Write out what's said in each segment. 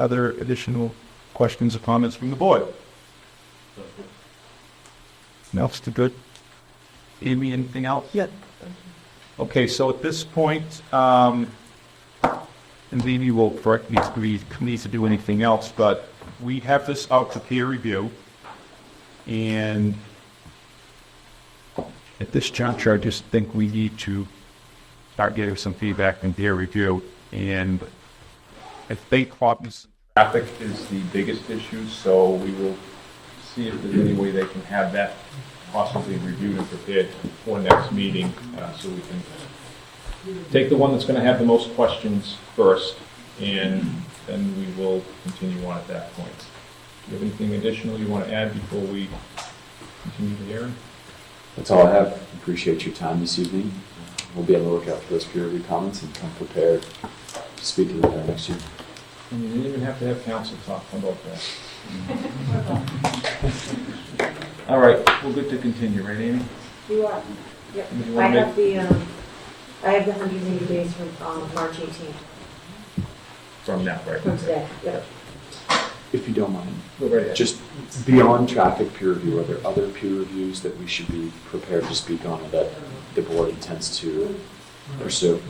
other additional questions or comments from the board? Mel's too good. Amy, anything else? Yeah. Okay, so at this point, um, and then you will correct me if we need to do anything else, but we have this out to peer review. And at this juncture, I just think we need to start getting some feedback and peer review. And I think problems. Traffic is the biggest issue, so we will see if there's any way they can have that possibly reviewed and prepared for next meeting, uh, so we can take the one that's gonna have the most questions first, and then we will continue on at that point. Do you have anything additional you wanna add before we continue the hearing? That's all I have. Appreciate your time this evening. We'll be on the lookout for those peer review comments and come prepared to speak to them next year. And you didn't even have to have council talk about that. All right, we're good to continue, right, Amy? You are, yep. You I wanna have the, um, I have the hundred and eighty days from, um, March eighteenth, From now, right? from today, yep. If you don't mind, Go right ahead. just beyond traffic peer review, are there other peer reviews that we should be prepared to speak on or that the board intends to pursue?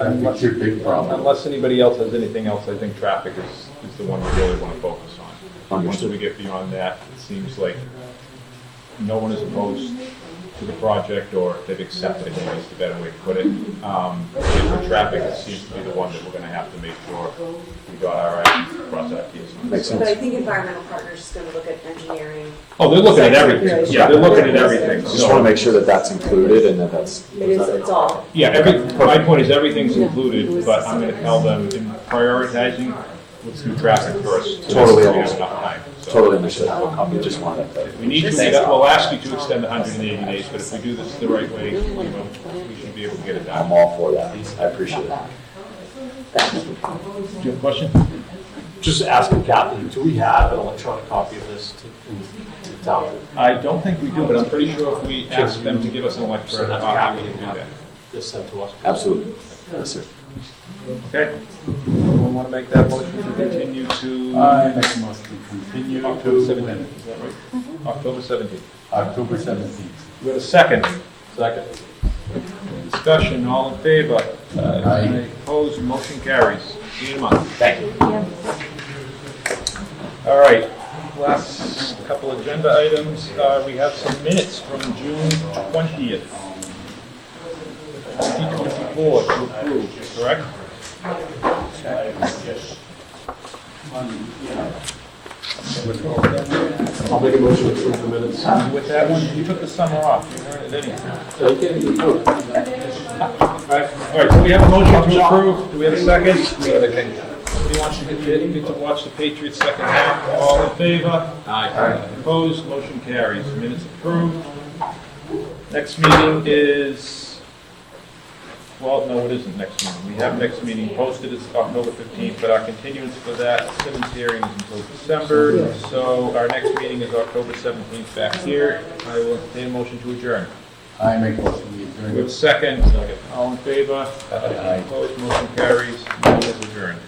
uh, That's your big problem. Unless anybody else has anything else, I think traffic is, is the one we really want to focus on. Once Understood. we get beyond that, it seems like no one is opposed to the project, or they've accepted it, is the better way to put it. Um, and for traffic, it seems to be the one that we're gonna have to make sure we got our, act- cross our Ts. on. Makes But I sense. think environmental partners is gonna look at engineering. Oh, they're looking at everything, yeah, they're looking at everything, Just want to so, make sure that that's included and that that's. It is, it's all, yeah, every, my point is everything's included, but I'm gonna tell them in prioritizing, let's do traffic first. Totally. We have enough time, so. Totally understood. I just wanted that. We need to, we'll ask you to extend the hundred and eighty days, but if we do this the right way, you know, we should be able to get it I'm done. all for that. I appreciate it. Do you have a question? Just asking Kathy, do we have an electronic copy of this to, to town? I don't think we do, but I'm pretty sure if we ask them to give us an electronic copy, we can do that. This sent to us? Absolutely. Yes, sir. Okay. Someone want to make that motion to continue to Uh, I make a motion to continue October to seventeenth, is that right? October seventeenth. October 17th. We have a second. Second. Discussion, all in favor? Aye. Opposed, motion carries. See you in a month. Thank you. All right, last couple agenda items, uh, we have some minutes from June twentieth. Twenty twenty-four to approve, correct? I'll make a motion to approve the minutes. With that one, you took the summer off, you heard it anyhow. All right, all right, so we have a motion to approve, do we have a second? Anybody wants to get, get to watch the Patriots second half, all in favor? Aye. Opposed, motion carries, minutes approved. Next meeting is, well, no, it isn't next meeting. We have next meeting posted, it's October 15th, but our continuance for that Simmons hearing is until December, so our next meeting is October 17th back here. I will entertain a motion to adjourn. I make a motion to With adjourn. second, all in favor? Opposed, motion carries, meeting is adjourned.